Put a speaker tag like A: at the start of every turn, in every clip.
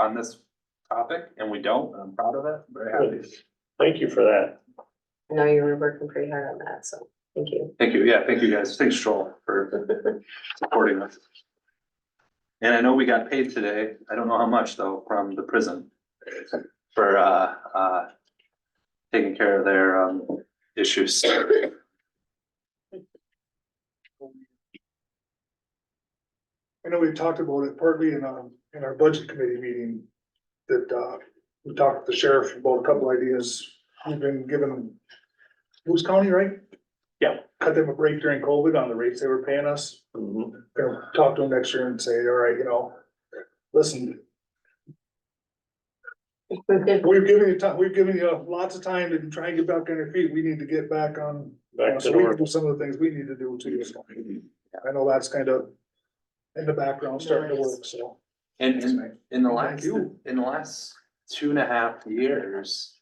A: on this topic, and we don't, and I'm proud of it, very happy.
B: Thank you for that.
C: I know you were working pretty hard on that, so thank you.
A: Thank you, yeah, thank you guys, thanks Joel for supporting us. And I know we got paid today, I don't know how much though, from the prison for uh, uh, taking care of their um, issues.
D: I know we've talked about it partly in, um, in our budget committee meeting, that, uh, we talked to the sheriff about a couple ideas. We've been given, Moose County, right?
B: Yeah.
D: Cut them a break during COVID on the rates they were paying us.
B: Mm-hmm.
D: Gonna talk to them next year and say, all right, you know, listen, we've given you time, we've given you lots of time to try and get back on your feet. We need to get back on
B: Back to Mm-hmm.
D: so we can
B: normal.
D: do some of the things we need to do too. so. I know that's kind of in the background starting to work, so.
A: And and in the
D: Thank
A: last,
D: you.
A: in the last two and a half years,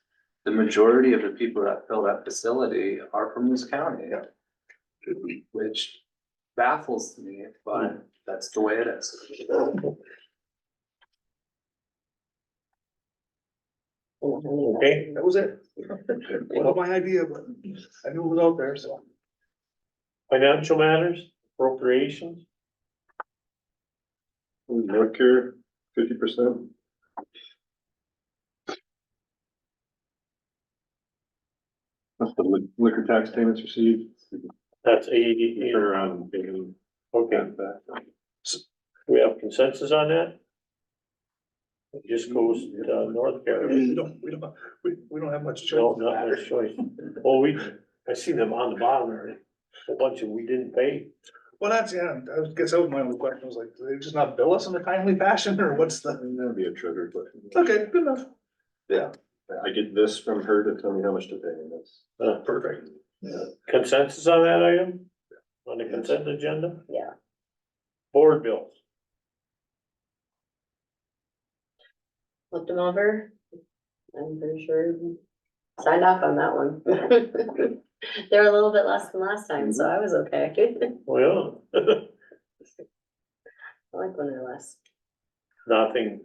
A: the majority of the people that fill that facility are from this county. Which baffles me, but that's the way it is.
B: Okay,
D: That was it. Well, my idea, but I knew it was out there, so.
B: financial matters, appropriations,
E: Medicare, fifty percent. That's the li- liquor tax payments received. um,
B: that's eighty,
E: Turn around and pay them
B: okay,
E: back.
B: we have consensus on that? It just goes to North Carolina,
D: We don't, we don't, we, we don't have much
B: no,
D: choice.
B: not their choice, well, we, I see them on the bottom there, a bunch of we didn't pay.
D: Well, that's, yeah, I was- guess that was my only question, was like, do they just not bill us in a timely fashion, or what's the,
E: And That'd be a trigger, but
D: okay, good enough,
E: I get this from her to tell me how much to pay and that's.
B: Uh,
D: perfect.
B: Consensus on that item, on the consent agenda,
C: Yeah,
B: board bills,
C: looked them over. I'm pretty sure you signed off on that one. They're a little bit less than last time, so I was okay. I
B: well,
C: like when they're less.
B: nothing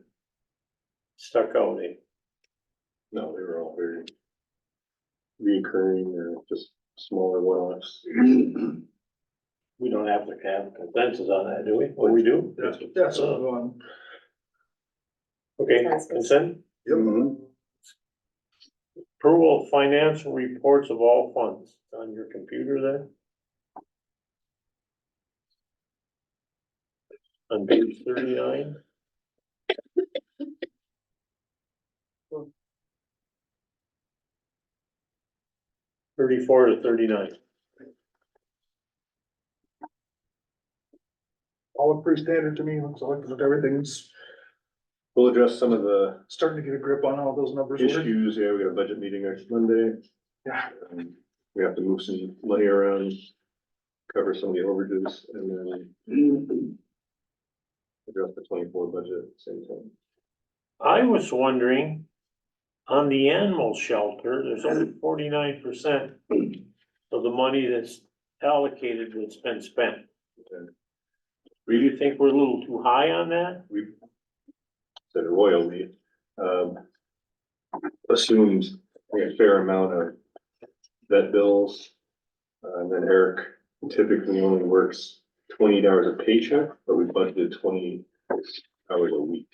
B: stuck out, eh?
E: No, they were all very reoccurring or just smaller one-offs.
B: we don't have to have consensus on that, do we? Well, we do?
D: Yeah, so, um, go on.
B: Okay,
C: Consensus.
B: consent,
E: Mhm.
B: approval of financial reports of all funds on your computer there. On page thirty-nine, thirty-four to thirty-nine.
D: all look pretty standard to me, looks like that everything's
E: We'll address some of the
D: starting to get a grip on how those numbers work.
E: issues, yeah, we got a budget meeting next Monday.
D: Yeah.
E: Um, We have to move some money around, cover some of the overages and
D: Mm-hmm.
E: then. Address the twenty-four budget at the same time.
B: I was wondering, on the animal shelter, there's only forty-nine percent of the money that's allocated that's been spent. Do you think we're a little too high on that?
E: We said royally, um. Assumed a fair amount of vet bills. Uh, And then Eric typically only works twenty hours a paycheck, but we budgeted twenty hours a week.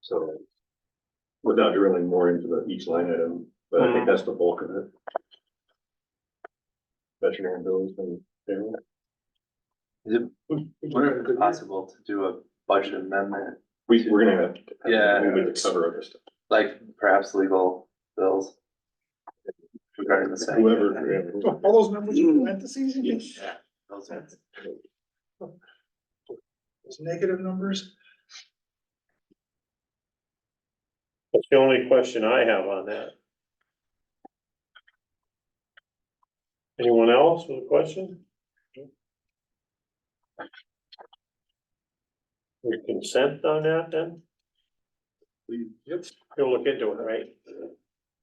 E: So. Without drilling more into the each line item, but I think that's the bulk of it. Veterinarian bills and. payroll.
A: Is it,
D: We- we did
A: wonder
D: a
A: if
D: good
A: it's
D: year.
A: possible to do a budget amendment,
E: We, we're gonna have. to-
A: Yeah.
E: We would cover other stuff.
A: like perhaps legal bills? Regarding the same.
E: Whoever. yeah.
D: All those numbers in parentheses,
E: Yes.
A: Yeah, those are-
D: those negative numbers,
B: That's the only question I have on that. Anyone else with a question? Your consent on that then?
E: Yep.
B: You'll look into it, right?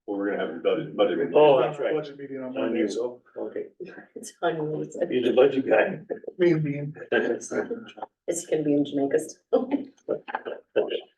E: Well, we're gonna have a budget, budget. meeting.
B: Oh,
D: We've
B: that's
D: got a
B: right.
D: Budget meeting on Monday, so,
B: Okay,
C: It's funny, it's-
B: you're the budget guy.
D: me and being,
C: it's gonna be in Jamaica still.